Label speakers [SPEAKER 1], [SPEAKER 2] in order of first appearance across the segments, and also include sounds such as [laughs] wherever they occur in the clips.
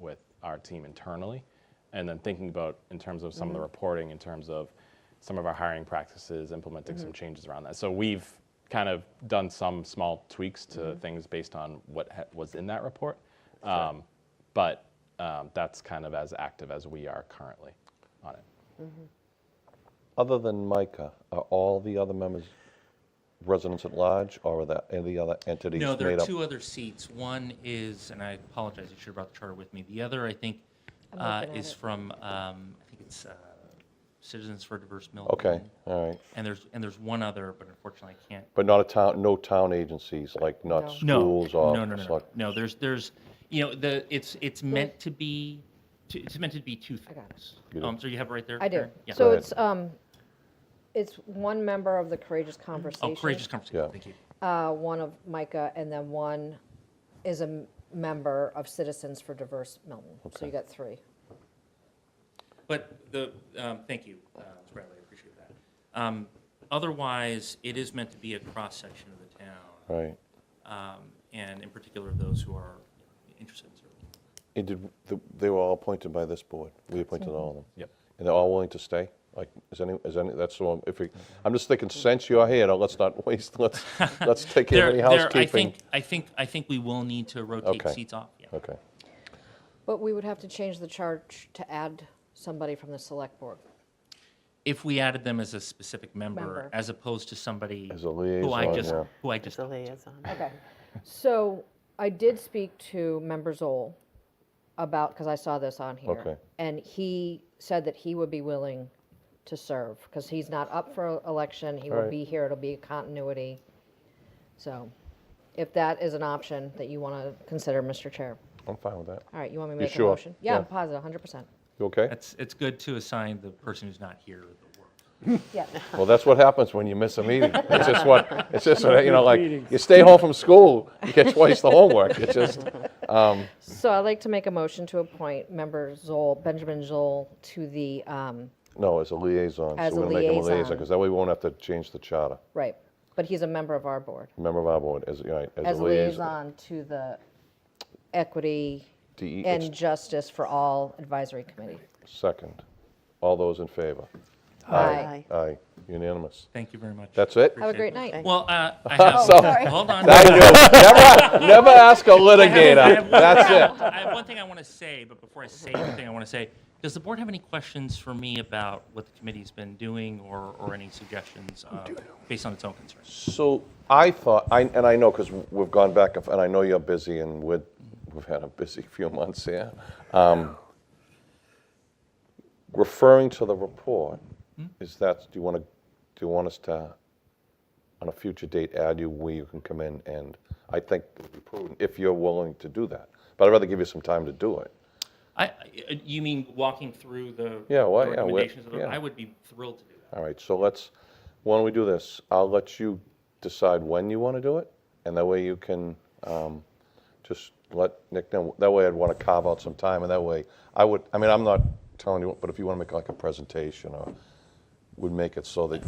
[SPEAKER 1] with our team internally, and then thinking about in terms of some of the reporting, in terms of some of our hiring practices, implementing some changes around that. So we've kind of done some small tweaks to things based on what ha- was in that report, um, but um, that's kind of as active as we are currently on it.
[SPEAKER 2] Other than Micah, are all the other members residents at large, or are there any other entities
[SPEAKER 3] No, there
[SPEAKER 2] made
[SPEAKER 3] are
[SPEAKER 2] up?
[SPEAKER 3] two other seats. One is, and I apologize, I should have brought the charter with me. The other, I think,
[SPEAKER 4] I'm
[SPEAKER 3] uh,
[SPEAKER 4] looking at
[SPEAKER 3] is
[SPEAKER 4] it.
[SPEAKER 3] from, um, I think it's uh, Citizens for Diverse Milton.
[SPEAKER 2] Okay, all right.
[SPEAKER 3] And there's, and there's one other, but unfortunately I can't.
[SPEAKER 2] But not a town, no town agencies, like not
[SPEAKER 3] No,
[SPEAKER 2] schools
[SPEAKER 3] no,
[SPEAKER 2] or?
[SPEAKER 3] no, no, no.
[SPEAKER 2] select-
[SPEAKER 3] No, there's, there's, you know, the, it's, it's meant to be, t- it's meant to be two
[SPEAKER 4] got it.
[SPEAKER 3] things.
[SPEAKER 2] You do.
[SPEAKER 3] Um, so you have it right there?
[SPEAKER 4] I do.
[SPEAKER 3] Karen? Yeah.
[SPEAKER 2] Go
[SPEAKER 4] So
[SPEAKER 2] ahead.
[SPEAKER 4] it's, um, it's one member of the Courageous Conversation.
[SPEAKER 3] Oh, courageous conversation.
[SPEAKER 2] Yeah.
[SPEAKER 3] Thank you.
[SPEAKER 4] Uh, one of Micah, and then one is a m- member of Citizens for Diverse Milton. So you got three.
[SPEAKER 3] But the, um, thank you, uh, Ms. Bradley, I appreciate that. Um, Otherwise, it is meant to be a cross-section of the town,
[SPEAKER 2] Right.
[SPEAKER 3] um, and in particular, those who are you know, interested in serving.
[SPEAKER 2] And did, the- they were all appointed by this board? We appointed all of them?
[SPEAKER 1] Yep.
[SPEAKER 2] And they're all willing to stay? Like, is any, is any, that's the one, if we, I'm just thinking, since you're here, now let's not [laughs] waste, let's, let's take care of any
[SPEAKER 3] There- there- I
[SPEAKER 2] housekeeping.
[SPEAKER 3] think, I think, I think we will need to rotate
[SPEAKER 2] Okay.
[SPEAKER 3] seats off, yeah.
[SPEAKER 2] Okay,
[SPEAKER 4] But we would have to change the charge to add somebody from the select board.
[SPEAKER 3] If we added them as a specific member,
[SPEAKER 4] Member.
[SPEAKER 3] as opposed to somebody.
[SPEAKER 2] As a
[SPEAKER 3] Who I
[SPEAKER 2] liaison,
[SPEAKER 3] just,
[SPEAKER 2] yeah.
[SPEAKER 3] who I just,
[SPEAKER 4] Okay. So I did speak to Member Zoll about, because I saw this on here.
[SPEAKER 2] Okay.
[SPEAKER 4] And he said that he would be willing to serve, because he's not up for election. He will
[SPEAKER 2] Alright.
[SPEAKER 4] be here. It'll be a continuity. So if that is an option that you want to consider, Mr. Chair.
[SPEAKER 2] I'm fine with that.
[SPEAKER 4] All right, you want me to make a
[SPEAKER 2] sure?
[SPEAKER 4] motion? Yeah, I'm
[SPEAKER 2] Yeah.
[SPEAKER 4] positive, 100%.
[SPEAKER 2] You okay?
[SPEAKER 3] it's, it's good to assign the person who's not here the work.
[SPEAKER 4] Yeah.
[SPEAKER 2] Well, that's what happens when you miss a meeting. It's just what, it's just, what, you know, like, you stay home from school, you get twice the homework. It's just,
[SPEAKER 4] So I'd like to make a motion to appoint Member Zoll, Benjamin Zoll, to the, um,
[SPEAKER 2] no, as a liaison.
[SPEAKER 4] As
[SPEAKER 2] So
[SPEAKER 4] a
[SPEAKER 2] we're going to make him a liaison,
[SPEAKER 4] liaison.
[SPEAKER 2] because that way we won't have to change the charter.
[SPEAKER 4] right, but he's a member of our board.
[SPEAKER 2] Member of our board, as, right,
[SPEAKER 4] as a liaison to the Equity
[SPEAKER 2] DE
[SPEAKER 4] and Justice for All Advisory Committee.
[SPEAKER 2] Second. All those in favor?
[SPEAKER 4] Aye.
[SPEAKER 2] Aye, unanimous.
[SPEAKER 3] Thank you very much.
[SPEAKER 2] That's it?
[SPEAKER 4] Have a great night.
[SPEAKER 3] Well, uh,
[SPEAKER 2] [laughs]
[SPEAKER 3] I have,
[SPEAKER 2] sorry.
[SPEAKER 3] [laughs] hold on.
[SPEAKER 2] I knew. Never, never
[SPEAKER 4] [laughs]
[SPEAKER 2] ask a
[SPEAKER 3] I have
[SPEAKER 2] litigator.
[SPEAKER 3] one-
[SPEAKER 2] That's it.
[SPEAKER 3] I have one thing I want to say, but before I say anything, I want to say, does the board have any questions for me about what the committee's been doing or, or any suggestions uh, based on its own concerns?
[SPEAKER 2] So I thought, I, and I know, because we've gone back, and f- and I know you're busy, and we're, we've had a busy [laughs] few months here. Um, Referring to the report, is that, do you want to, do you want us to, on a future date, add you where you can come in? And I think it would be prudent, if you're willing to do that. But I'd rather give you some time to do it.
[SPEAKER 3] I, I- you mean walking through the
[SPEAKER 2] Yeah, well,
[SPEAKER 3] the
[SPEAKER 2] yeah, we-
[SPEAKER 3] recommendations? of the-
[SPEAKER 2] yeah.
[SPEAKER 3] I would be thrilled to do that.
[SPEAKER 2] All right, so let's, why don't we do this? I'll let you decide when you want to do it, and that way you can um, just let Nick know. That way I'd want to carve out some time, and that way, I would, I mean, I'm not telling you, but if you want to make like a presentation, or would make it so that,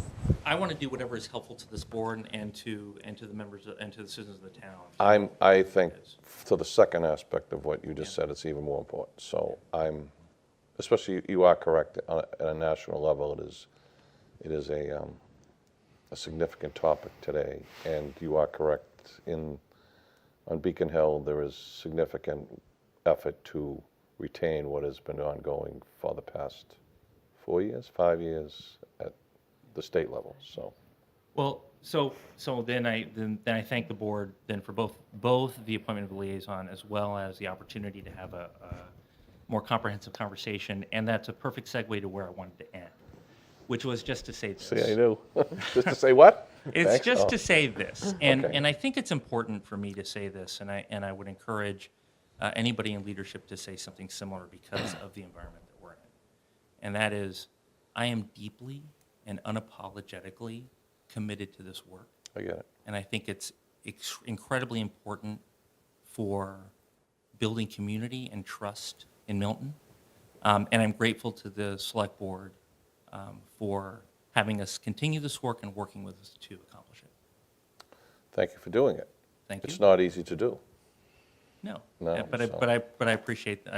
[SPEAKER 3] I want to do whatever is helpful to this board and to, and to the members, of- and to the citizens of the town.
[SPEAKER 2] I'm, I think, to the second aspect of what you just said, it's even more important. So I'm, especially, you- you are correct, on a- at a national level, it is, it is a, um, a significant topic today, and you are correct. In, on Beacon Hill, there is significant effort to retain what has been ongoing for the past four years, five years at the state level, so.
[SPEAKER 3] Well, so, so then I, then, then I thank the board then for both, both the appointment of the liaison as well as the opportunity to have a, a more comprehensive conversation. And that's a perfect segue to where I wanted to end, which was just to say this.
[SPEAKER 2] See, I knew. [laughs] Just to say what?
[SPEAKER 3] It's
[SPEAKER 2] Thanks?
[SPEAKER 3] just
[SPEAKER 2] Oh.
[SPEAKER 3] to
[SPEAKER 2] [clears throat]
[SPEAKER 3] say this, and,
[SPEAKER 2] Okay.
[SPEAKER 3] and I think it's important for me to say this, and I, and I would encourage uh, anybody in leadership to say something similar because of the environment that we're in. And that is, I am deeply and unapologetically committed to this work.
[SPEAKER 2] I get it.
[SPEAKER 3] And I think it's ex- incredibly important for building community and trust in Milton. Um, and I'm grateful to the select board um, for having us continue this work and working with us to accomplish it.
[SPEAKER 2] Thank you for doing it.
[SPEAKER 3] Thank you.
[SPEAKER 2] It's not easy to do.
[SPEAKER 3] no,
[SPEAKER 2] No,
[SPEAKER 3] Uh, but I,
[SPEAKER 2] so-
[SPEAKER 3] but I but I appreciate I